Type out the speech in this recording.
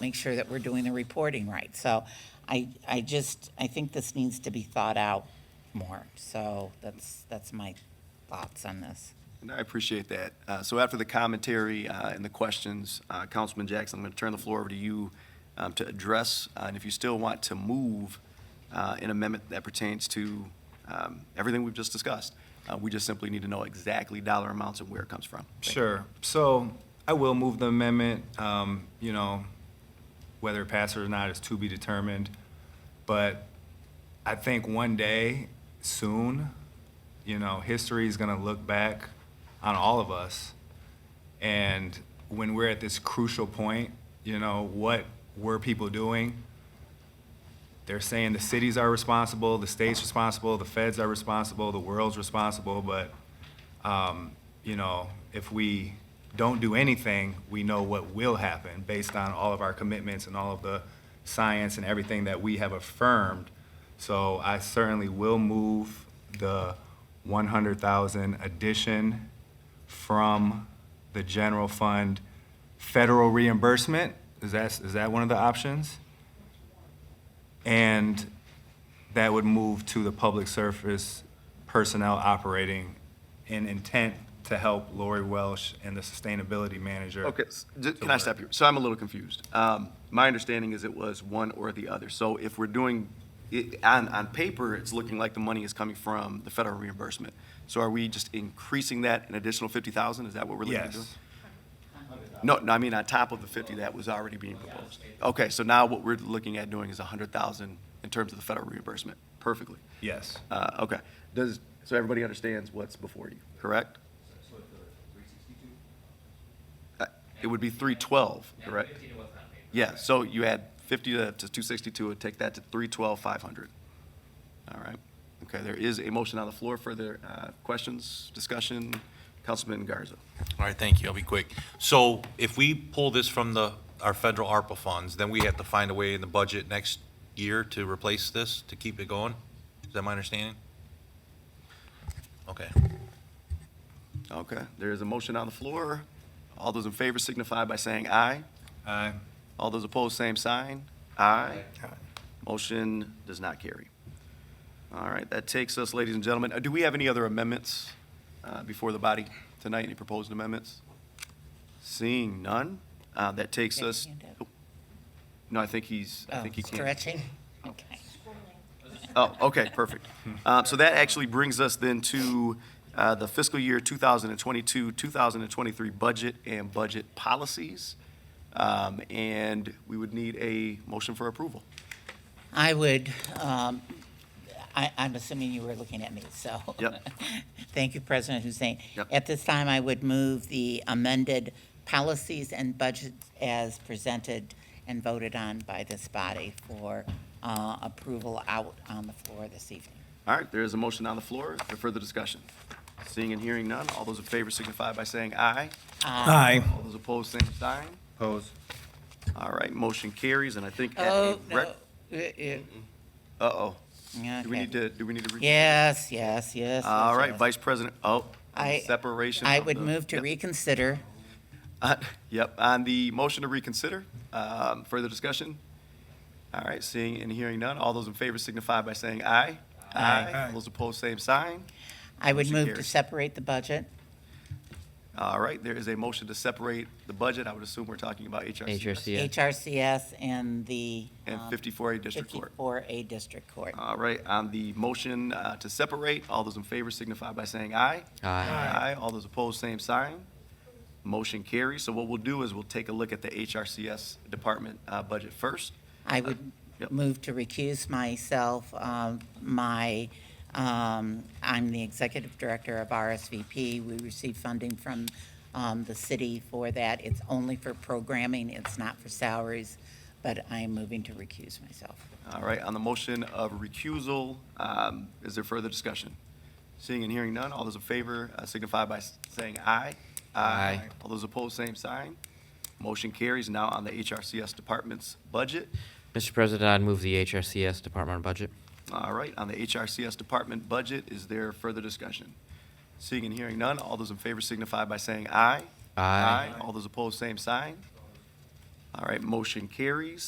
make sure that we're doing the reporting right. So I, I just, I think this needs to be thought out more. So that's, that's my thoughts on this. And I appreciate that. Uh, So after the commentary uh, and the questions, uh, Councilman Jackson, I'm going to turn the floor over to you um, to address, uh, and if you still want to move uh, an amendment that pertains to um, everything we've just discussed, uh, we just simply need to know exactly dollar amounts and where it comes from. Thank you. Sure. So I will move the amendment. Um, You know, whether it passes or not is to be determined. But I think one day, soon, you know, history is going to look back on all of us. And when we're at this crucial point, you know, what were people doing? They're saying the cities are responsible, the state's responsible, the feds are responsible, the world's responsible, but um, you know, if we don't do anything, we know what will happen based on all of our commitments and all of the science and everything that we have affirmed. So I certainly will move the one hundred thousand addition from the general fund federal reimbursement. Is that, is that one of the options? And that would move to the public service personnel operating in intent to help Lori Welsh and the sustainability manager. Okay, s- j- can I stop you? So I'm a little confused. Um, My understanding is it was one or the other. So if we're doing, it- on, on paper, it's looking like the money is coming from the federal reimbursement. So are we just increasing that an additional 50,000? Is that what we're looking at doing? Yes. No, no, I mean on top of the 50 that was already being proposed. Okay, so now what we're looking at doing is 100,000 in terms of the federal reimbursement. Perfectly. Yes. Uh, Okay. Does, so everybody understands what's before you, correct? Uh, It would be 312, correct? Yeah, so you add 50 to to 262, and take that to 312, 500. All right. Okay, there is a motion on the floor. Further uh, questions, discussion? Councilman Garza. All right, thank you. I'll be quick. So if we pull this from the, our federal ARPA funds, then we have to find a way in the budget next year to replace this, to keep it going? Is that my understanding? Okay. Okay, there is a motion on the floor. All those in favor signify by saying aye. Aye. All those opposed, same sign. Aye. Motion does not carry. All right, that takes us, ladies and gentlemen, uh, do we have any other amendments uh, before the body tonight? Any proposed amendments? Seeing none, uh, that takes Yeah, us, hand up. Oh, no, I think he's, I Oh, think he can. Stretching? Okay. Oh, okay, perfect. Uh, So that actually brings us then to uh, the fiscal year 2022, 2023 budget and budget policies. Um, And we would need a motion for approval. I would, um, I, I'm assuming you were looking at me, so. Yep. Thank you, President Hussein. Yep. At this time, I would move the amended policies and budgets as presented and voted on by this body for uh, approval out on the floor this evening. All right, there is a motion on the floor for further discussion. Seeing and hearing none, all those in favor signify by saying aye. Um, Aye. All those opposed, same sign. Pose. All right, motion carries, and I think. at a Oh, rec- no. Uh, Uh-oh. uh, Do we need okay. to, do we need to? re- Yes, yes, yes. All yes, right, yes. Vice President, oh, I- separation. I of would the- move to Yep. reconsider. Uh, Yep, on the motion to reconsider, um, further discussion? All right, seeing and hearing none, all those in favor signify by saying aye. Aye. All Those opposed, same sign. I would Motion move to carries. separate the budget. All right, there is a motion to separate the budget, I would assume we're talking about HRC HRCS. HRCS and the. and um, 54A District Court. 54A District Court. All right, on the motion uh, to separate, all those in favor signify by saying aye. Aye. Aye, all those opposed, same sign. Motion carries. So what we'll do is we'll take a look at the HRCS department uh, budget first. I would Yep. move to recuse myself. Um, My, um, I'm the executive director of RSVP. We receive funding from um, the city for that. It's only for programming, it's not for salaries, but I am moving to recuse myself. All right, on the motion of recusal, um, is there further discussion? Seeing and hearing none, all those in favor uh, signify by s- saying aye. Aye. All those opposed, same sign. Motion carries. Now on the HRCS department's budget. Mr. President, I'd move the HRCS Department on Budget. All right, on the HRCS department budget, is there further discussion? Seeing and hearing none, all those in favor signify by saying aye. Aye. All those opposed, same sign. All right, motion carries.